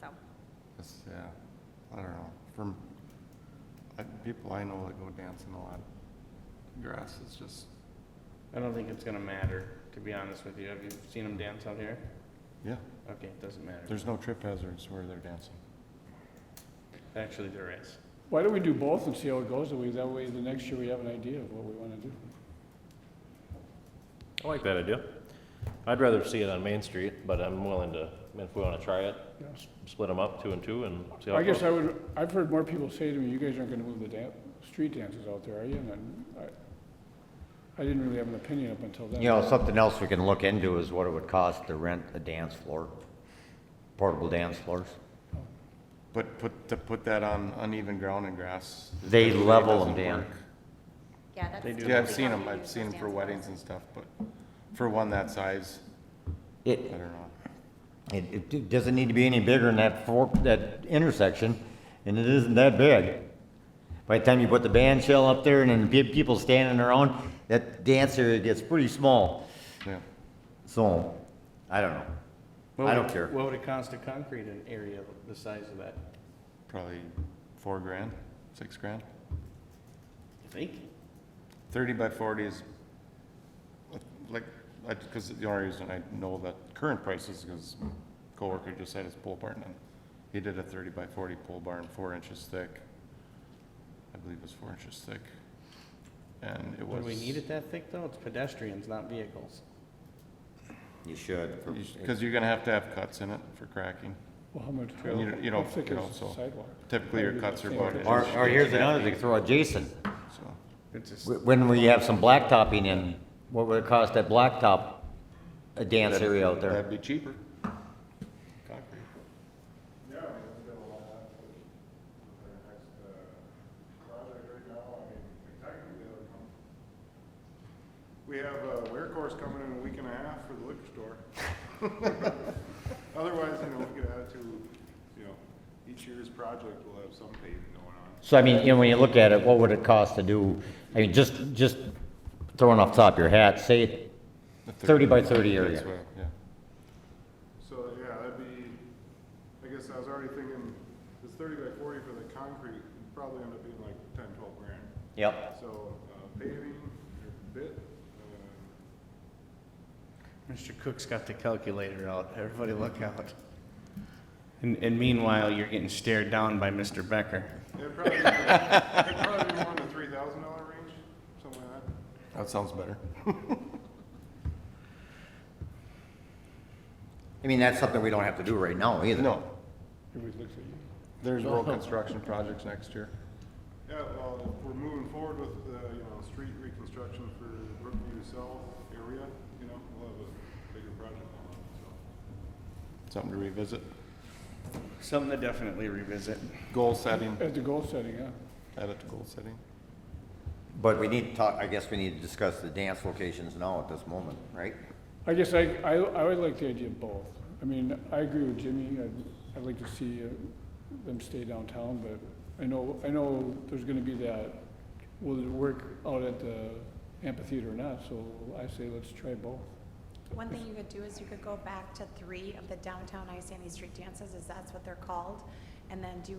so. It's, yeah, I don't know, from, I, people I know that go dancing a lot, grass is just, I don't think it's gonna matter, to be honest with you. Have you seen them dance out here? yeah, Okay, it doesn't matter. there's no trip hazards where they're dancing. Actually, there is. Why don't we do both and see how it goes, that way, that way the next year we have an idea of what we wanna do. I like that idea. I'd rather see it on Main Street, but I'm willing to, if we want to try it, Yes. split them up two and two and see how I it guess goes. I would, I've heard more people say to me, you guys aren't gonna move the dan- street dances out there, are you? And then I, I didn't really have an opinion up until then. You know, something else we can look into is what it would cost to rent a dance floor, portable dance floors. But put, to put that on uneven ground and grass. it They really level 'em, doesn't Dan. work. Yeah, that's. They do. Yeah, I've that's seen how them, we I've use seen those them for dance weddings and stuff, but for one that size, It, I don't know. it, it do- doesn't need to be any bigger than that fork, that intersection, and it isn't that big. By the time you put the band shell up there and then pe- people standing around, that dance area gets pretty small. Yeah, So, I don't know. I don't care. What would it cost to concrete an area the size of that? probably four grand, six grand. You think? Thirty by forty is, like, I, because the only reason I know that current price is because coworker just had his pole barn and he did a thirty by forty pole barn, four inches thick. I believe it was four inches thick. And it Would was. we need it that thick, though? It's pedestrians, not vehicles. You should. for- Because you're gonna have to have cuts in it for cracking. Well, how much, You know- you know, how thick you know, is so- the sidewalk? Typically, your cuts are about. an Or, inch, or inch here's and a half another thing, deep, throw a Jason. so. It's just, Wh- When we have some blacktopping in, what would it cost at blacktop, a dance That'd- area out there? That'd be cheaper. Concrete. uh, We have a wear course coming in a week and a half for the liquor store. Otherwise, you know, we could add to, you know, each year's project will have some paving going on. So I mean, you know, when you look at it, what would it cost to do, I mean, just, just throwing off the top of your hat, say, The 30 by 30 area. That's what- Yeah. So, yeah, that'd be, I guess I was already thinking, it's thirty by forty for the concrete, it'd probably end up being like ten, twelve grand. yep, So, uh, paving, your bit, uh, Mr. Cook's got the calculator out. Everybody look out. And, and meanwhile, you're getting stared down by Mr. Becker. it'd probably, be- it'd probably be more in the three thousand dollar range, something like that. That sounds better. I mean, that's something we don't have to do right now either. No, Everybody looks at you. there's road construction projects next year. Yeah, well, if we're moving forward with the, you know, street reconstruction for Brookview South area, you know, we'll have a bigger project on it, so. Something to revisit. Something to definitely revisit. Goal setting, At the goal setting, yeah. add it to goal setting. But we need to talk, I guess we need to discuss the dance locations now at this moment, right? I guess I, I, I would like the idea of both. I mean, I agree with Jimmy, I'd, I'd like to see uh, them stay downtown, but I know, I know there's gonna be that, will it work out at the amphitheater or not, so I say let's try both. One thing you could do is you could go back to three of the downtown Ice Sandy street dances, is that's what they're called, and then do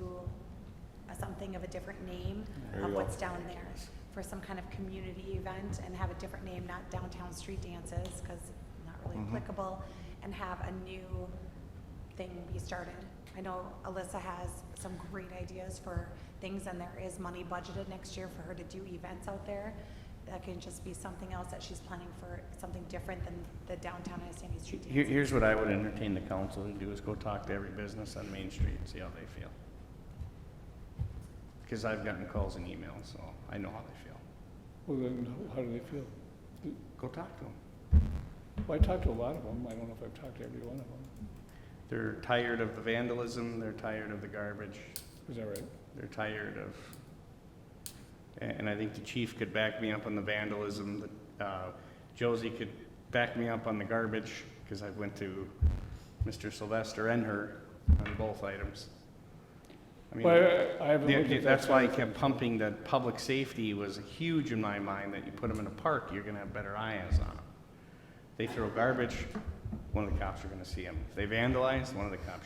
a- something of a different name There you of go. what's down there for some kind of community event and have a different name, not downtown street dances, because not really Mhm. applicable, and have a new thing be started. I know Alyssa has some great ideas for things, and there is money budgeted next year for her to do events out there. That can just be something else that she's planning for, something different than the downtown Iowa Street Here, Dance. here's what I would entertain the council to do, is go talk to every business on Main Street and see how they feel. Because I've gotten calls and emails, so I know how they feel. Well, then, how do they feel? Go talk to them. Well, I talked to a lot of them, I don't know if I've talked to every one of them, They're tired of the vandalism, they're tired of the garbage, is that right? they're tired of, a- and I think the chief could back me up on the vandalism, the- uh, Josie could back me up on the garbage, because I went to Mr. Sylvester and her on both items. I mean, Well, I- I haven't Yeah, looked yeah, at that. That's why I kept pumping that public safety was huge in my mind, that you put them in a park, you're gonna have better eyes on them. They throw garbage, one of the cops are gonna see them. If they vandalize, one of the cops